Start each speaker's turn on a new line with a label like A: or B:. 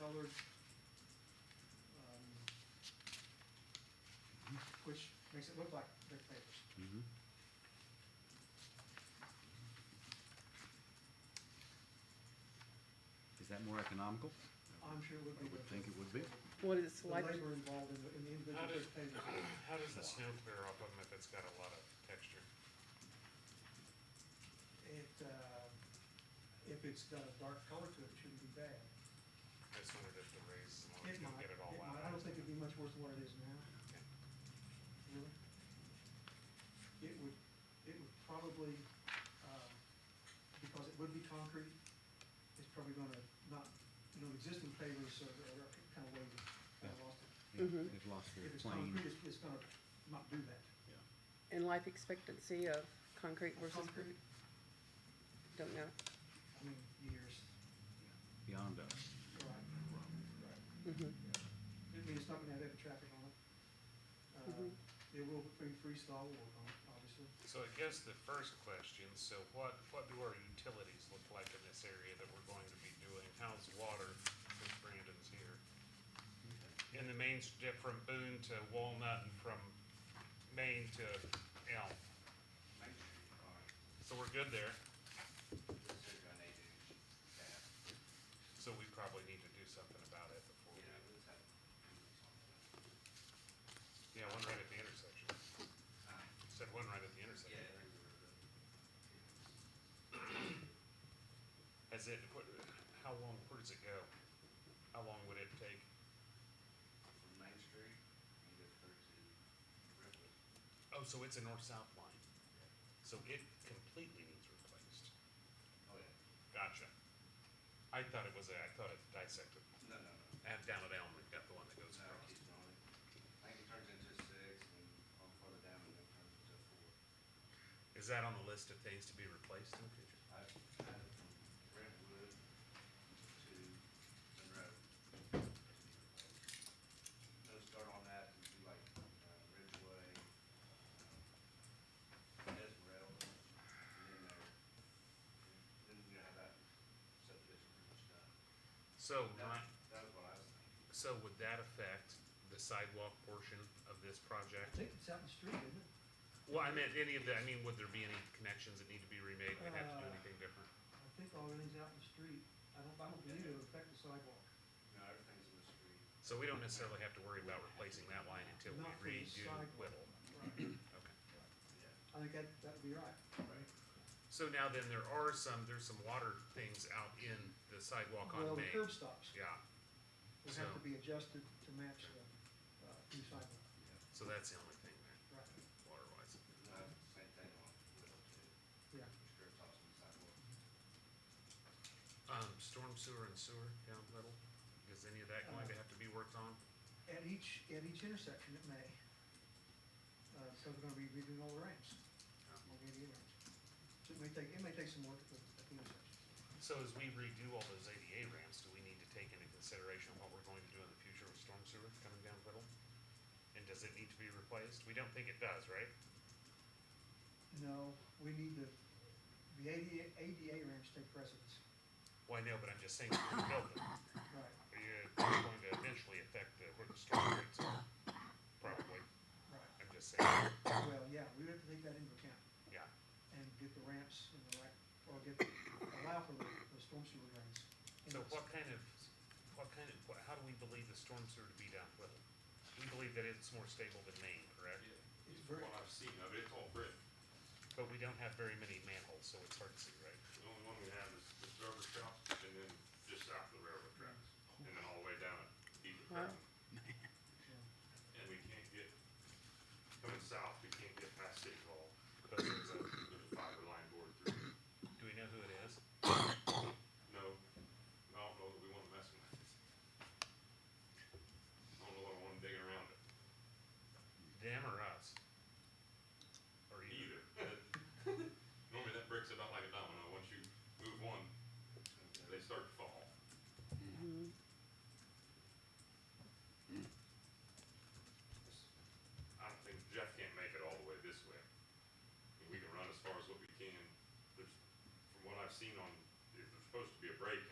A: covered. um, Which makes it look like brick pavers.
B: Mm-hmm. Is that more economical?
A: I'm sure it would be.
B: I would think it would be.
C: What is
A: The
C: like,
A: labor involved in the, in the individual
D: How
A: brick
D: does,
A: pavers.
D: how does the snow clear off of them if it's got a lot of texture?
A: It, uh, if it's got a dark color to it, it shouldn't be bad.
D: I just wondered if the rays, as long as
A: It
D: you
A: might,
D: get
A: it
D: it all
A: might.
D: out.
A: I don't think it'd be much worse than what it is now,
D: Okay.
A: really. It would, it would probably, um, because it would be concrete, it's probably gonna not, you know, existing pavers are, are kind of wavy, kind of lost it.
B: Yeah,
C: Mhm.
B: They've lost
A: Mm-hmm.
B: their
A: If it's
B: plane.
A: concrete, it's, it's gonna not do that.
B: Yeah.
C: and life expectancy of concrete versus,
A: Concrete,
C: don't know.
A: I mean, years,
B: Beyond us.
A: right, right.
C: Mhm.
A: It means it's not gonna have heavy traffic on it. Uh,
D: Mm-hmm.
C: Mhm.
A: It will be freestyle work on it, obviously.
D: So I guess the first question, so what, what do our utilities look like in this area that we're going to be doing? How's water since Brandon's here? In the main, strip from Boone to Walnut and from Main to Elm. So we're good there, so we probably need to do something about it before we. Yeah, one right at the intersection. Said one right at the intersection. Has it, what, how long, where does it go? How long would it take? Oh, so it's a north-south line. So it completely needs replaced. Gotcha. I thought it was, a- I thought it dissected. And down at Elm, we've got the one that goes across. Is that on the list of things to be replaced in the future?
E: Those start on that, and do like uh, Ridgeway, uh, Esmeralda, and then there. Then we have that subdivision pretty much done.
D: So,
E: That,
D: right,
E: that was what I was thinking.
D: so would that affect the sidewalk portion of this
A: I
D: project?
A: think it's out in the street, isn't it?
D: Well, I meant any of the, I mean, would there be any connections that need to be remade? We'd have to do
A: Uh,
D: anything different?
A: I think all everything's out in the street. I don't, I don't believe it'll affect the sidewalk.
E: No, everything's in the street.
D: So we don't necessarily have to worry about replacing that line until
A: Not for
D: we
A: the
D: redo
A: sidewalk.
D: Whittle.
A: Right.
D: Okay.
E: Yeah.
A: I think that, that would be right.
D: So now then, there are some, there's some water things out in the sidewalk
A: Well,
D: on
A: the
D: Main.
A: curb stops
D: Yeah,
A: would have
D: so-
A: to be adjusted to match the, uh, new sidewalk,
D: so that's the only thing there,
A: right,
D: water wise.
E: No, it's the same thing on Whittle too.
A: yeah.
E: Strip tops on the sidewalk.
D: Um, storm sewer and sewer down Whittle, is any of that going
A: Uh,
D: to have to be worked on?
A: At each, at each intersection it may. Uh, so we're gonna be redoing all the ramps,
D: Um,
A: all the ADA ramps. So it may take, it may take some work at the, at the intersection.
D: So as we redo all those ADA ramps, do we need to take into consideration what we're going to do in the future with storm sewer coming down Whittle? And does it need to be replaced? We don't think it does, right?
A: No, we need the, the ADA, ADA ramps take precedence,
D: Well, I know, but I'm just saying, if we build them,
A: right.
D: it's going to eventually affect the, where the storm rates are, probably.
A: Right.
D: I'm just saying,
A: Well, yeah, we would have to take that into account.
D: yeah.
A: and get the ramps in the right, or get, allow for the, the storm sewer drains.
D: So what kind of, what kind of, what- how do we believe the storm sewer to be down Whittle? We believe that it's more stable than Maine, correct?
A: It's
F: Yeah,
A: very-
F: What I've seen of it, it's all brick.
D: But we don't have very many manholes, so it's hard to see, right?
F: The only one we have is the server shop and then just south of the railroad tracks. And then all the way down at Beaver Creek.
A: Yeah.
F: And we can't get, coming south, we can't get past City Hall.
D: But there's a-
F: There's a fiber line board through.
D: Do we know who it is?
F: No, I don't know that we want to mess with it. I don't know what I want digging around it
D: Them or us? Or either?
F: either. Normally that breaks it up like a domino. Once you move one, they start to fall. I don't think Jeff can't make it all the way this way. I mean, We can run as far as what we can. There's, from what I've seen on, there's supposed to be a break